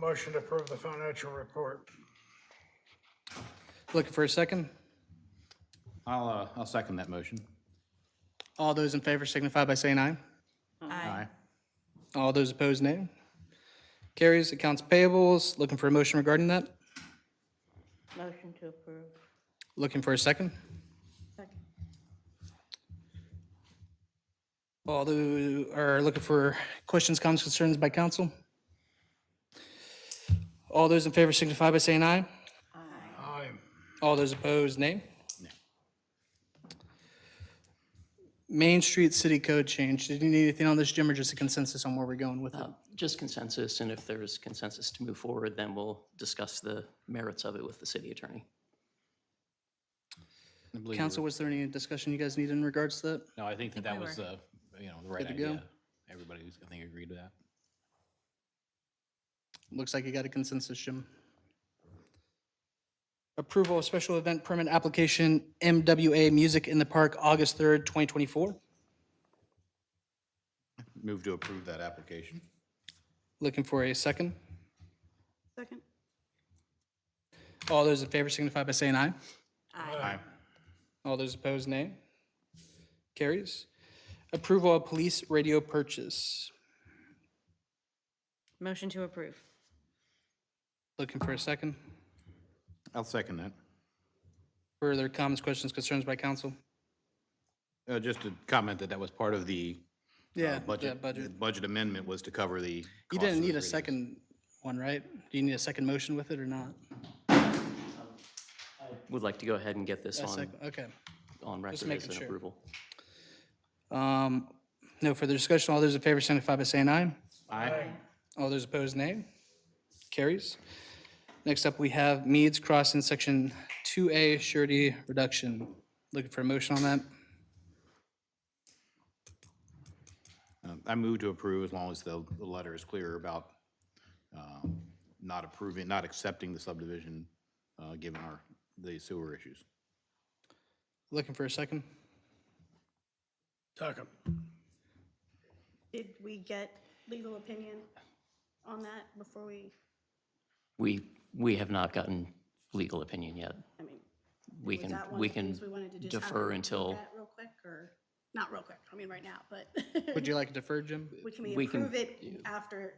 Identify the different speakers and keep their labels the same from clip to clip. Speaker 1: Motion to approve the financial report.
Speaker 2: Looking for a second?
Speaker 3: I'll, uh, I'll second that motion.
Speaker 2: All those in favor signify by saying aye.
Speaker 3: Aye.
Speaker 2: All those opposed, nay. Carries. Accounts payables, looking for a motion regarding that?
Speaker 4: Motion to approve.
Speaker 2: Looking for a second?
Speaker 4: Second.
Speaker 2: All those are looking for questions, comments, concerns by council? All those in favor signify by saying aye.
Speaker 1: Aye.
Speaker 2: All those opposed, nay. Main Street City Code change. Did you need anything on this, Jim, or just a consensus on where we're going with it?
Speaker 5: Just consensus, and if there's consensus to move forward, then we'll discuss the merits of it with the city attorney.
Speaker 3: I believe we
Speaker 2: Council, was there any discussion you guys needed in regards to that?
Speaker 3: were- No, I think that that was, uh, you know, the right
Speaker 2: to go?
Speaker 3: idea. Everybody, was- I think, agreed to that.
Speaker 2: Looks like you got a consensus, Jim. Approval of special event permit application MWA Music in the Park, August 3rd, 2024.
Speaker 3: Move to approve that application.
Speaker 2: Looking for a second.
Speaker 4: Second.
Speaker 2: All those in favor signify by saying aye.
Speaker 3: Aye.
Speaker 2: All those opposed, nay. Carries. Approval of police radio purchase.
Speaker 6: Motion to approve.
Speaker 2: Looking for a second.
Speaker 3: I'll second that.
Speaker 2: Further comments, questions, concerns by council?
Speaker 3: Uh, just to comment that that was part of the uh, budget.
Speaker 2: that
Speaker 3: the
Speaker 2: Budget.
Speaker 3: Budget amendment was to cover the.
Speaker 2: You
Speaker 3: cost
Speaker 2: didn't
Speaker 3: of
Speaker 2: need a
Speaker 3: those radios.
Speaker 2: second one, right? Do you need a second motion with it or not?
Speaker 5: Would like to go ahead and get this
Speaker 2: A
Speaker 5: on,
Speaker 2: second, okay.
Speaker 5: on record as
Speaker 2: making
Speaker 5: an
Speaker 2: sure.
Speaker 5: approval.
Speaker 2: Um, No further discussion. All those in favor signify by saying aye.
Speaker 3: Aye.
Speaker 2: All those opposed, nay. Carries. Next up, we have Meads Crossing, Section 2A surety reduction. Looking for a motion on that?
Speaker 3: Uh, I move to approve as long as the, the letter is clear about, um, not approving, not accepting the subdivision, uh, given our, the sewer issues.
Speaker 2: Looking for a second?
Speaker 1: Second.
Speaker 4: Did we get legal opinion on that before we,
Speaker 5: We, we have not gotten legal opinion yet.
Speaker 4: I mean,
Speaker 5: We
Speaker 4: was
Speaker 5: can,
Speaker 4: that one
Speaker 5: we
Speaker 4: of the
Speaker 5: can
Speaker 4: things we wanted to just have a
Speaker 5: defer
Speaker 4: look
Speaker 5: until,
Speaker 4: at Real quick, or, not real quick, I mean, right now, but
Speaker 2: Would you like to defer, Jim?
Speaker 4: we can we
Speaker 5: we can-
Speaker 4: approve it after,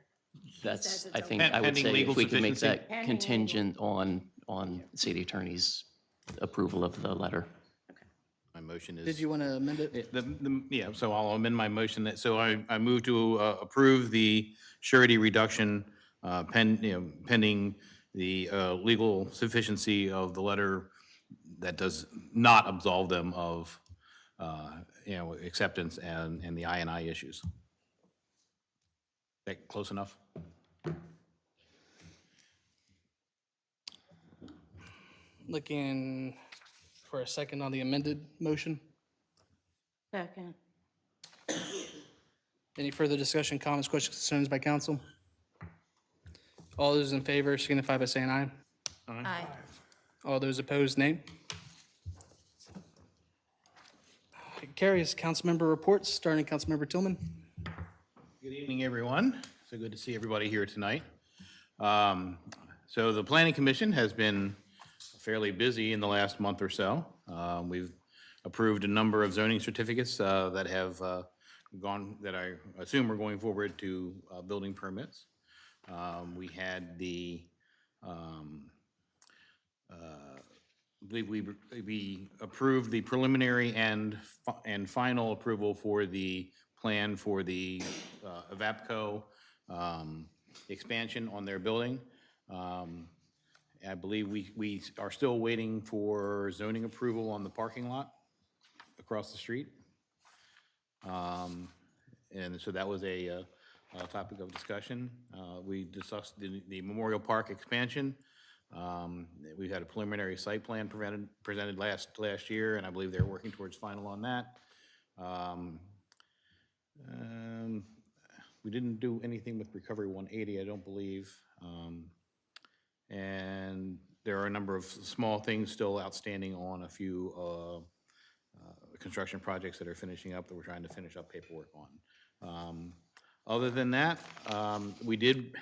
Speaker 5: that's,
Speaker 4: says it's
Speaker 5: I
Speaker 4: okay.
Speaker 5: think, I would
Speaker 3: Pending
Speaker 5: say
Speaker 3: legal
Speaker 5: if we can make
Speaker 3: sufficiency?
Speaker 5: that contingent on, on city attorney's approval of the letter.
Speaker 3: My motion is.
Speaker 2: Did you want to amend it?
Speaker 3: The, the, yeah, so I'll amend my motion that, so I, I move to uh, approve the surety reduction uh, pen, you know, pending the uh, legal sufficiency of the letter that does not absolve them of, uh, you know, acceptance and, and the I and I issues. That close enough?
Speaker 2: Looking for a second on the amended motion?
Speaker 6: Second.
Speaker 2: Any further discussion, comments, questions, concerns by council? All those in favor signify by saying aye.
Speaker 6: Aye.
Speaker 2: All those opposed, nay. It Carries council member reports, starting Councilmember Tillman.
Speaker 3: Good evening, everyone. So good to see everybody here tonight. Um, So the Planning Commission has been fairly busy in the last month or so. Um, We've approved a number of zoning certificates uh, that have uh, gone, that I assume are going forward to uh, building permits. Um, We had the, um, I believe we, we approved the preliminary and, fi- and final approval for the plan for the uh, Evapco um, expansion on their building. Um, I believe we, we are still waiting for zoning approval on the parking lot across the street. Um, And so that was a, uh, a topic of discussion. Uh, We discussed the the Memorial Park expansion. Um, We had a preliminary site plan prevented, presented last, last year, and I believe they're working towards final on that. Um, um, We didn't do anything with Recovery 180, I don't believe. Um, And there are a number of s- small things still outstanding on a few uh, uh, construction projects that are finishing up that we're trying to finish up paperwork on. Um, Other than that, um, we did